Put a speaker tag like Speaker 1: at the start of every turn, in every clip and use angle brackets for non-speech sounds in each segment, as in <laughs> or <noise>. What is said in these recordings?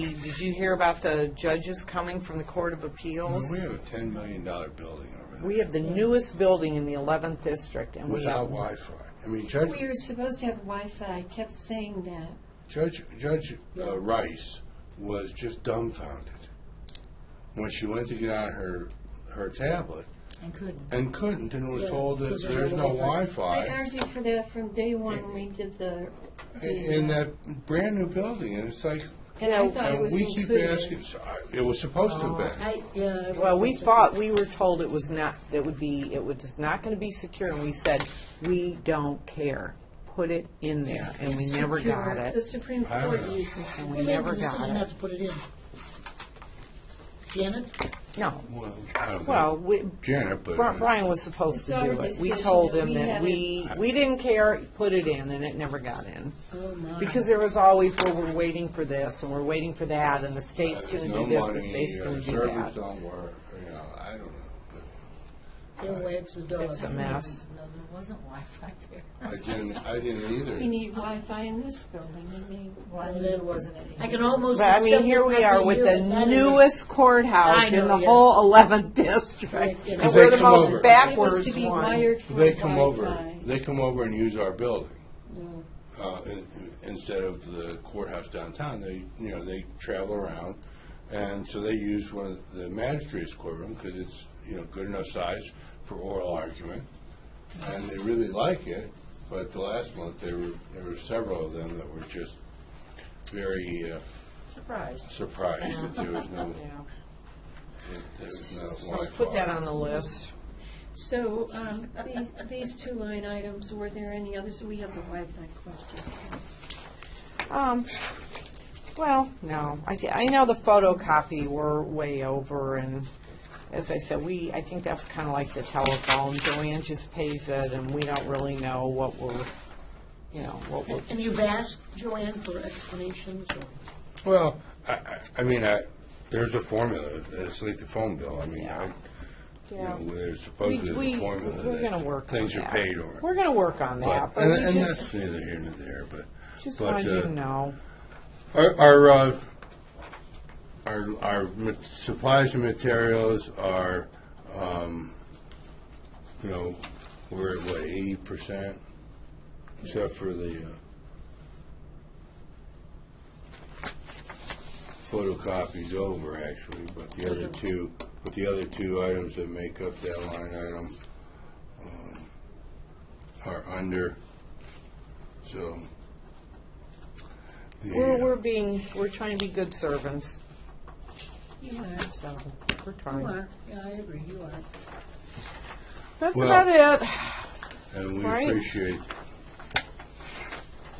Speaker 1: Did you hear about the judges coming from the Court of Appeals?
Speaker 2: We have a ten million dollar building over
Speaker 1: We
Speaker 2: there
Speaker 1: have the newest building in the 11th District, and we
Speaker 2: without
Speaker 1: have
Speaker 2: Wi-Fi. I mean, Judge,
Speaker 3: We were supposed to have Wi-Fi, I kept saying that.
Speaker 2: Judge, Judge uh, Rice was just dumbfounded when she went to get on her, her tablet
Speaker 4: And couldn't.
Speaker 2: and couldn't and was told that
Speaker 4: because of
Speaker 2: there's
Speaker 4: the
Speaker 2: no
Speaker 3: I
Speaker 2: Wi-Fi
Speaker 3: argued for that from day one when we did the,
Speaker 2: i- in that brand-new building. And it's like,
Speaker 3: and I thought it
Speaker 2: and
Speaker 3: was
Speaker 2: we keep asking,
Speaker 3: included.
Speaker 2: so I- it was supposed to have been.
Speaker 4: I, yeah. I
Speaker 1: Well, we
Speaker 4: wasn't-
Speaker 1: thought, we were told it was not, it would be, it was not going to be secure, and we said, we don't care. Put it in there, and we never got
Speaker 3: Secure. The
Speaker 1: it.
Speaker 3: Supreme
Speaker 2: I don't
Speaker 3: Court
Speaker 2: know.
Speaker 3: uses it.
Speaker 1: And we
Speaker 4: We made the
Speaker 1: never got
Speaker 4: decision not
Speaker 1: it.
Speaker 4: to put it in. Janet?
Speaker 1: No.
Speaker 2: Well, I don't know.
Speaker 1: Well, we,
Speaker 2: Janet, but.
Speaker 1: Bri- Brian was supposed to
Speaker 3: It's our
Speaker 1: do it. We
Speaker 3: decision
Speaker 1: told
Speaker 3: that
Speaker 1: him
Speaker 3: we
Speaker 1: that
Speaker 3: had
Speaker 1: we, we didn't care, put it in, and it never got in.
Speaker 4: Oh, my.
Speaker 1: Because there was always, well, we're waiting for this, and we're waiting for that, and the state's going
Speaker 2: There's
Speaker 1: to
Speaker 2: no
Speaker 1: do this, the
Speaker 2: money,
Speaker 1: state's
Speaker 2: uh,
Speaker 1: going to do
Speaker 2: servers
Speaker 1: that.
Speaker 2: don't work, you know, I don't know. but-
Speaker 4: There wags the dog.
Speaker 1: It's a mess.
Speaker 4: No, there wasn't Wi-Fi there.
Speaker 2: I didn't, I didn't either.
Speaker 3: We need Wi-Fi in this building, I mean.
Speaker 4: Well, there wasn't any. I can almost
Speaker 1: But I
Speaker 4: accept
Speaker 1: mean,
Speaker 4: it
Speaker 1: here we are
Speaker 4: probably
Speaker 1: with
Speaker 4: here,
Speaker 1: the
Speaker 4: but not in
Speaker 1: newest courthouse
Speaker 4: I
Speaker 1: in
Speaker 4: know,
Speaker 1: the
Speaker 4: yeah.
Speaker 1: whole 11th district,
Speaker 4: Right,
Speaker 1: and
Speaker 2: They
Speaker 1: we're the
Speaker 2: come over.
Speaker 1: most
Speaker 3: It was to
Speaker 1: backwards
Speaker 3: be
Speaker 1: one.
Speaker 3: wired for
Speaker 2: They come over,
Speaker 3: Wi-Fi.
Speaker 2: they come over and use our building,
Speaker 3: No.
Speaker 2: uh, in- instead of the courthouse downtown, they, you know, they travel around, and so they use one of the magistrate's courtroom, because it's, you know, good enough size for oral argument, and they really like it, but the last month, there were, there were several of them that were just very uh,
Speaker 4: Surprised.
Speaker 2: surprised that there
Speaker 1: <laughs>
Speaker 2: was no, that there was no
Speaker 1: So
Speaker 2: Wi-Fi.
Speaker 1: put that on the list.
Speaker 3: So, um, these, these two line items, were there any others? We have the Wi-Fi question.
Speaker 1: Um, well, no, I, thi- I know the photocopy were way over, and as I said, we, I think that's kind of like the telephone. Joanne just pays it, and we don't really know what we're, you know, what we're,
Speaker 4: And you've asked Joanne for explanations or?
Speaker 2: Well, I, I, I mean, I, there's a formula, it's like the phone bill, I mean, I, you
Speaker 1: Yeah.
Speaker 2: know, there's
Speaker 1: we,
Speaker 2: supposedly
Speaker 1: we,
Speaker 2: a formula
Speaker 1: we're gonna
Speaker 2: that
Speaker 1: work on
Speaker 2: things are
Speaker 1: that.
Speaker 2: paid or.
Speaker 1: We're gonna work on that,
Speaker 2: But,
Speaker 1: but
Speaker 2: and,
Speaker 1: we
Speaker 2: and
Speaker 1: just,
Speaker 2: that's neither here nor there, but.
Speaker 1: just
Speaker 2: but,
Speaker 1: wanted you
Speaker 2: uh,
Speaker 1: to know.
Speaker 2: Our, our, uh, our, our ma- supplies and materials are, um, you know, we're at what, eighty percent? Except for the, uh, photocopies over actually, but the other two, but the other two items that make up that line item, um, are under, so. the,
Speaker 1: We're,
Speaker 2: uh,
Speaker 1: we're being, we're trying to be good servants,
Speaker 4: You are.
Speaker 1: so we're
Speaker 4: You
Speaker 1: trying.
Speaker 4: are. Yeah, I agree, you are.
Speaker 1: That's
Speaker 2: Well-
Speaker 1: about it.
Speaker 2: And we
Speaker 1: Right.
Speaker 2: appreciate,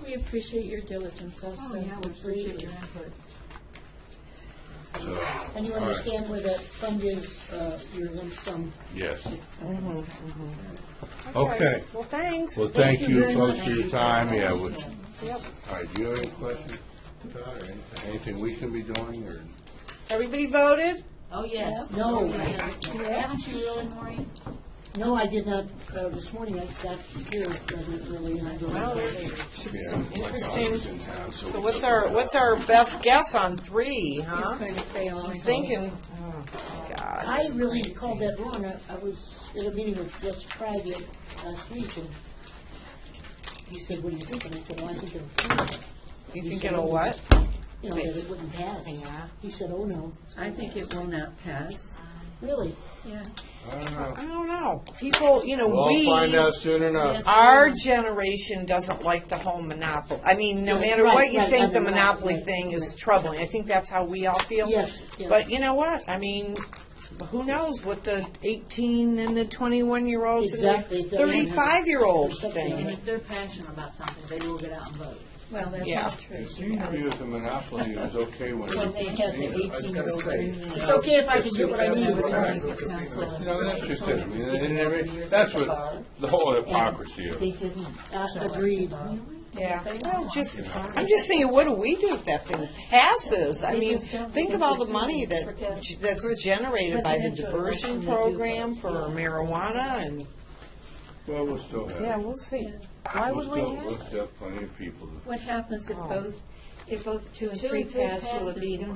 Speaker 3: We appreciate your diligence
Speaker 4: Oh,
Speaker 3: also.
Speaker 4: input.
Speaker 2: so,
Speaker 4: And you
Speaker 2: All right.
Speaker 4: understand where that fund is, uh, your lump sum?
Speaker 2: yes.
Speaker 1: Mm-hmm.
Speaker 2: Okay.
Speaker 1: Well, thanks.
Speaker 2: Well, thank
Speaker 4: you
Speaker 2: you
Speaker 4: very
Speaker 2: folks
Speaker 4: much.
Speaker 2: for your time, yeah. we-
Speaker 1: Yep.
Speaker 2: All right, do you have any questions? Todd, or anything- Anything we can be doing, or?
Speaker 1: Everybody voted?
Speaker 5: Oh, yes.
Speaker 4: No.
Speaker 5: Haven't you really, Maureen?
Speaker 4: No, I did not, uh, this morning I got here rather early and I don't.
Speaker 1: Should be
Speaker 2: Yeah,
Speaker 1: some
Speaker 2: my
Speaker 1: interesting,
Speaker 2: daughter's in town, so
Speaker 1: so
Speaker 2: we
Speaker 1: what's
Speaker 2: took
Speaker 1: our,
Speaker 2: her out.
Speaker 1: what's our best guess on three,
Speaker 3: It's
Speaker 1: huh?
Speaker 3: going to pay off.
Speaker 1: I'm thinking, oh, God.
Speaker 4: I really called that wrong. I- I was at a meeting with Jess Friday last week, and he said, what do you think? And I said, well, I think it'll, pass."
Speaker 1: You think it'll what?
Speaker 4: you know, that it wouldn't pass.
Speaker 1: Yeah.
Speaker 4: He said, oh, no,
Speaker 3: I think it will not pass.
Speaker 4: really?
Speaker 3: Yeah.
Speaker 2: I don't know.
Speaker 1: I don't know. People, you know,
Speaker 2: We'll
Speaker 1: we,
Speaker 2: find out soon enough.
Speaker 1: our
Speaker 4: Um,
Speaker 1: generation doesn't like the whole monopoly. I mean, no
Speaker 4: Right,
Speaker 1: matter what
Speaker 4: right,
Speaker 1: you
Speaker 4: right,
Speaker 1: think, the
Speaker 4: on the monop-
Speaker 1: monopoly
Speaker 4: right,
Speaker 1: thing is
Speaker 4: right.
Speaker 1: troubling. I think that's how we all feel.
Speaker 4: Yes, yes.
Speaker 1: But you know what? I mean, who knows what the 18 and the 21-year-olds and
Speaker 4: Exactly,
Speaker 1: the
Speaker 4: they're-
Speaker 1: 35-year-olds
Speaker 4: Something
Speaker 1: think.
Speaker 4: like
Speaker 5: And if they're passionate about something, they will get out and vote.
Speaker 3: Well, that's
Speaker 1: Yeah.
Speaker 3: not true.
Speaker 2: It seemed to be with the monopoly, it was okay when.
Speaker 4: When they had the
Speaker 2: I was gonna say.
Speaker 4: It's okay if I can get what I need.
Speaker 2: You know, that's just it, I mean, they didn't have- that's what, the whole hypocrisy of. it.
Speaker 4: didn't. Agreed.
Speaker 1: Yeah, well, just, I'm just thinking, what do we do if that thing passes? I mean, think of all the money that, that's generated by the diversion program for marijuana and,
Speaker 2: Well, we'll still have.
Speaker 1: yeah, we'll see. Why would
Speaker 2: we'll
Speaker 1: we
Speaker 2: still-
Speaker 1: have?
Speaker 2: We'll still have plenty of people to
Speaker 3: What happens if both,
Speaker 6: they're both two and
Speaker 3: Two
Speaker 6: three
Speaker 3: and three
Speaker 6: pass, so
Speaker 3: pass,
Speaker 6: it'll
Speaker 3: it's
Speaker 6: be
Speaker 3: gonna